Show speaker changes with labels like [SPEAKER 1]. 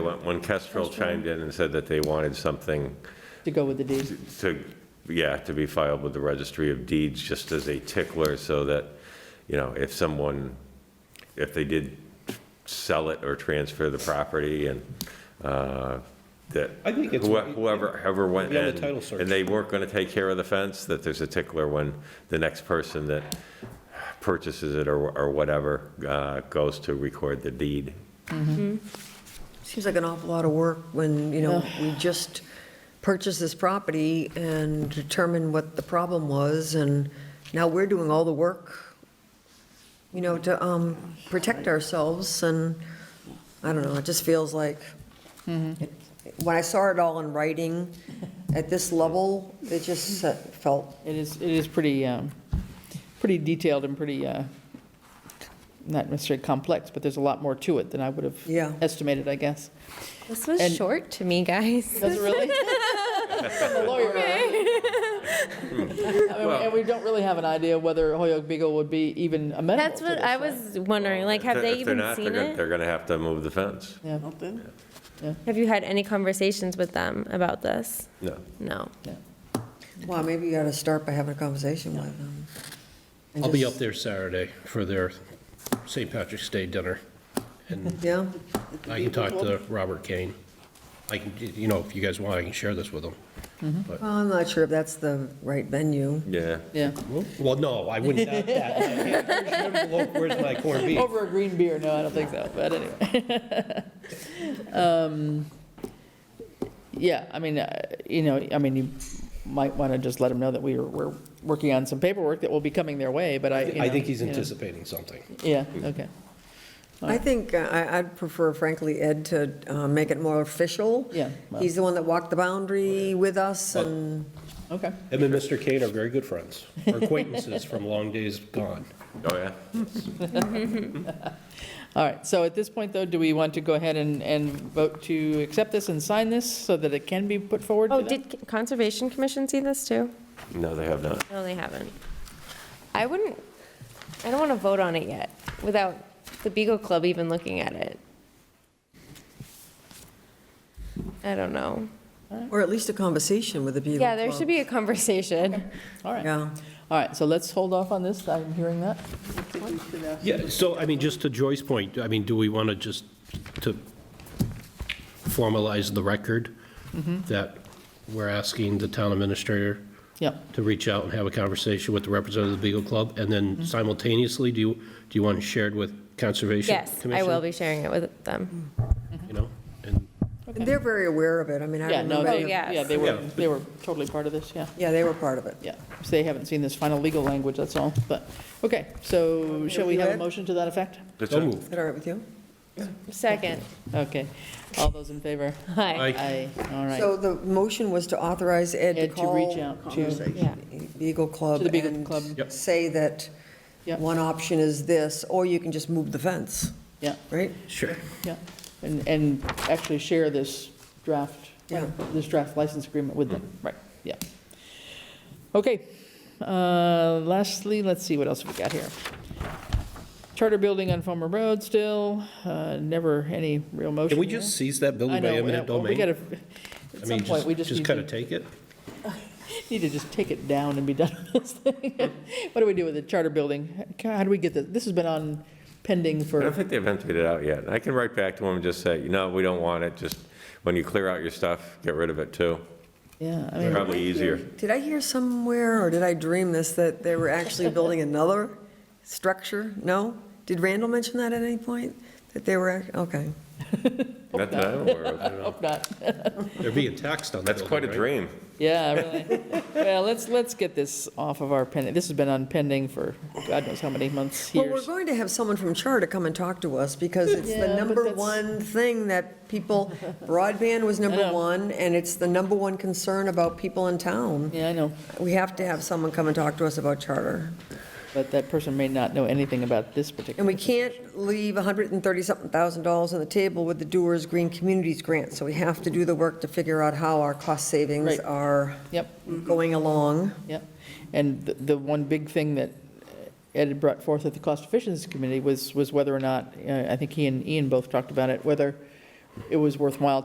[SPEAKER 1] When when Kestrel chimed in and said that they wanted something
[SPEAKER 2] to go with the deed.
[SPEAKER 1] to, yeah, to be filed with the registry of deeds, just as a tickler, so that, you know, if someone, if they did sell it or transfer the property and, uh, that
[SPEAKER 3] I think it's-
[SPEAKER 1] whoe- whoever, whoever went
[SPEAKER 3] Be on the
[SPEAKER 1] in,
[SPEAKER 3] title search.
[SPEAKER 1] and they weren't gonna take care of the fence, that there's a tickler when the next person that purchases it or, or whatever, uh, goes to record the deed.
[SPEAKER 4] Seems like an awful lot of work when, you know, we just purchased this property and determined what the problem was, and now we're doing all the work, you know, to um, protect ourselves, and, I don't know, it just feels like, when I saw it all in writing, at this level, it just uh, felt,
[SPEAKER 2] It is, it is pretty, um, pretty detailed and pretty, uh, not necessarily complex, but there's a lot more to it than I would have
[SPEAKER 4] Yeah.
[SPEAKER 2] estimated, I guess.
[SPEAKER 5] This was
[SPEAKER 2] And-
[SPEAKER 5] short to me, guys.
[SPEAKER 2] Does it really? I'm a lawyer. I mean, And we don't really have an idea whether Hoyok Beagle would be even amenable
[SPEAKER 5] That's
[SPEAKER 2] to
[SPEAKER 5] what
[SPEAKER 2] this,
[SPEAKER 5] I
[SPEAKER 2] right?
[SPEAKER 5] was wondering. Like, have
[SPEAKER 1] If
[SPEAKER 5] they
[SPEAKER 1] they're
[SPEAKER 5] even
[SPEAKER 1] not, they're
[SPEAKER 5] seen
[SPEAKER 1] gonna-
[SPEAKER 5] it?
[SPEAKER 1] They're gonna have to move the fence.
[SPEAKER 2] Yeah,
[SPEAKER 5] Have you had any conversations with them about this?
[SPEAKER 1] No.
[SPEAKER 5] No.
[SPEAKER 4] well, maybe you ought to start by having a conversation with them. and
[SPEAKER 3] I'll be up
[SPEAKER 4] just-
[SPEAKER 3] there Saturday for their St. Patrick's Day dinner, and
[SPEAKER 4] Yeah,
[SPEAKER 3] I can talk to Robert Kane. I can, you know, if you guys want, I can share this with him.
[SPEAKER 4] well, I'm not sure if that's the right venue.
[SPEAKER 1] Yeah.
[SPEAKER 2] yeah.
[SPEAKER 3] Well, no, I wouldn't doubt that. Where's my corned beef?
[SPEAKER 2] Over a green beer, no, I don't think so, but anyway. Um, Yeah, I mean, uh, you know, I mean, you might want to just let them know that we are, we're working on some paperwork that will be coming their way, but I, you
[SPEAKER 3] I
[SPEAKER 2] know,
[SPEAKER 3] think he's
[SPEAKER 2] you know.
[SPEAKER 3] anticipating something.
[SPEAKER 2] Yeah, okay.
[SPEAKER 4] I think, uh, I, I'd prefer frankly Ed to uh, make it more official.
[SPEAKER 2] Yeah, well-
[SPEAKER 4] He's the one that walked the boundary with us and,
[SPEAKER 2] Okay.
[SPEAKER 3] Him and Mr. Kane are very good friends, or acquaintances from long days gone.
[SPEAKER 1] Oh, yeah?
[SPEAKER 2] All right, so at this point, though, do we want to go ahead and, and vote to accept this and sign this so that it can be put forward to
[SPEAKER 5] Oh,
[SPEAKER 2] them?
[SPEAKER 5] did Conservation Commission see this too?
[SPEAKER 1] No, they have not.
[SPEAKER 5] No, they haven't. I wouldn't, I don't want to vote on it yet without the Beagle Club even looking at it. I don't know.
[SPEAKER 4] or at least a conversation with the Beagle
[SPEAKER 5] Yeah, there
[SPEAKER 4] Club.
[SPEAKER 5] should be a conversation.
[SPEAKER 2] All right,
[SPEAKER 4] Yeah,
[SPEAKER 2] all right, so let's hold off on this, I'm hearing that.
[SPEAKER 3] Yeah, so, I mean, just to Joy's point, I mean, do we want to just, to formalize the record
[SPEAKER 4] Mm-hmm.
[SPEAKER 3] that we're asking the town administrator
[SPEAKER 2] Yeah,
[SPEAKER 3] to reach out and have a conversation with the representative of the Beagle Club? And
[SPEAKER 2] Mm-hmm.
[SPEAKER 3] then simultaneously, do you, do you want it shared with Conservation
[SPEAKER 5] Yes,
[SPEAKER 3] Commission?
[SPEAKER 5] I will be sharing it with them.
[SPEAKER 3] You know, and,
[SPEAKER 4] And they're very aware of it, I mean, I
[SPEAKER 2] yeah, no,
[SPEAKER 4] remember,
[SPEAKER 2] they,
[SPEAKER 5] Oh,
[SPEAKER 4] the-
[SPEAKER 5] yes.
[SPEAKER 2] yeah, they were,
[SPEAKER 3] Yeah.
[SPEAKER 2] they were totally part of this, yeah.
[SPEAKER 4] yeah, they were part of it.
[SPEAKER 2] Yeah, so they haven't seen this final legal language, that's all, but, okay, so shall we have a
[SPEAKER 4] Ed?
[SPEAKER 2] motion to that effect?
[SPEAKER 1] That's
[SPEAKER 3] so
[SPEAKER 1] it.
[SPEAKER 3] moved.
[SPEAKER 4] Is that all right with you?
[SPEAKER 5] Second.
[SPEAKER 2] Okay, all those in favor?
[SPEAKER 5] Hi.
[SPEAKER 2] Aye, all
[SPEAKER 4] So
[SPEAKER 2] right.
[SPEAKER 4] the motion was to authorize Ed to
[SPEAKER 2] Ed to
[SPEAKER 4] call.
[SPEAKER 2] reach out to,
[SPEAKER 5] Yeah.
[SPEAKER 4] Beagle Club.
[SPEAKER 2] To the Beagle
[SPEAKER 4] and
[SPEAKER 2] Club.
[SPEAKER 3] Yep.
[SPEAKER 4] Say that
[SPEAKER 2] Yep.
[SPEAKER 4] one option is this, or you can just move the fence,
[SPEAKER 2] yeah,
[SPEAKER 4] right?
[SPEAKER 3] Sure.
[SPEAKER 2] yeah, and, and actually share this draft,
[SPEAKER 4] Yeah.
[SPEAKER 2] this draft license agreement with them,
[SPEAKER 3] Mm-hmm.
[SPEAKER 2] right, yeah. Okay, uh, lastly, let's see, what else have we got here? Charter building on Farmer Road still, uh, never any real motion
[SPEAKER 3] Can we
[SPEAKER 2] here.
[SPEAKER 3] just seize that
[SPEAKER 2] I
[SPEAKER 3] building by
[SPEAKER 2] know,
[SPEAKER 3] eminent
[SPEAKER 2] well,
[SPEAKER 3] domain?
[SPEAKER 2] We gotta,
[SPEAKER 3] I
[SPEAKER 2] at some
[SPEAKER 3] mean,
[SPEAKER 2] point, we just need
[SPEAKER 3] Just
[SPEAKER 2] to
[SPEAKER 3] kind of take it?
[SPEAKER 2] Need to just take it down and be done with this thing. What do we do with the charter building? How do we get this? This has been on pending
[SPEAKER 1] I don't
[SPEAKER 2] for,
[SPEAKER 1] think they've emptied it out yet. I can write back to them and just say, you know, we don't want it, just, when you clear out your stuff, get rid of it too.
[SPEAKER 2] yeah, I mean,
[SPEAKER 1] Probably easier.
[SPEAKER 4] Did I hear somewhere, or did I dream this, that they were actually building another structure? No? Did Randall mention that at any point? That they were, act- okay.
[SPEAKER 1] Not that I'm aware of.
[SPEAKER 2] hope not.
[SPEAKER 3] They're being taxed on the
[SPEAKER 1] That's
[SPEAKER 3] building,
[SPEAKER 1] quite a
[SPEAKER 3] right?
[SPEAKER 1] dream.
[SPEAKER 2] Yeah, really. Well, let's, let's get this off of our pending. This has been on pending for God knows how many months,
[SPEAKER 4] Well, we're
[SPEAKER 2] years.
[SPEAKER 4] going to have someone from Charter come and talk to us, because it's
[SPEAKER 2] Yeah,
[SPEAKER 4] the
[SPEAKER 2] but
[SPEAKER 4] number
[SPEAKER 2] that's-
[SPEAKER 4] one thing that people, broadband was number
[SPEAKER 2] know.
[SPEAKER 4] one, and it's the number one concern about people in town.
[SPEAKER 2] Yeah, I know,
[SPEAKER 4] We have to have someone come and talk to us about Charter.
[SPEAKER 2] but that person may not know anything about this
[SPEAKER 4] And
[SPEAKER 2] particular.
[SPEAKER 4] we can't leave 130-something thousand dollars on the table with the Doers Green Communities Grant, so we have to do the work to figure out how our cost savings
[SPEAKER 2] Right.
[SPEAKER 4] are
[SPEAKER 2] Yep.
[SPEAKER 4] going along.
[SPEAKER 2] Yeah, and the- the one big thing that Ed had brought forth at the Cost Efficiency Committee was, was whether or not, uh, I think he and Ian both talked about it, whether it was worthwhile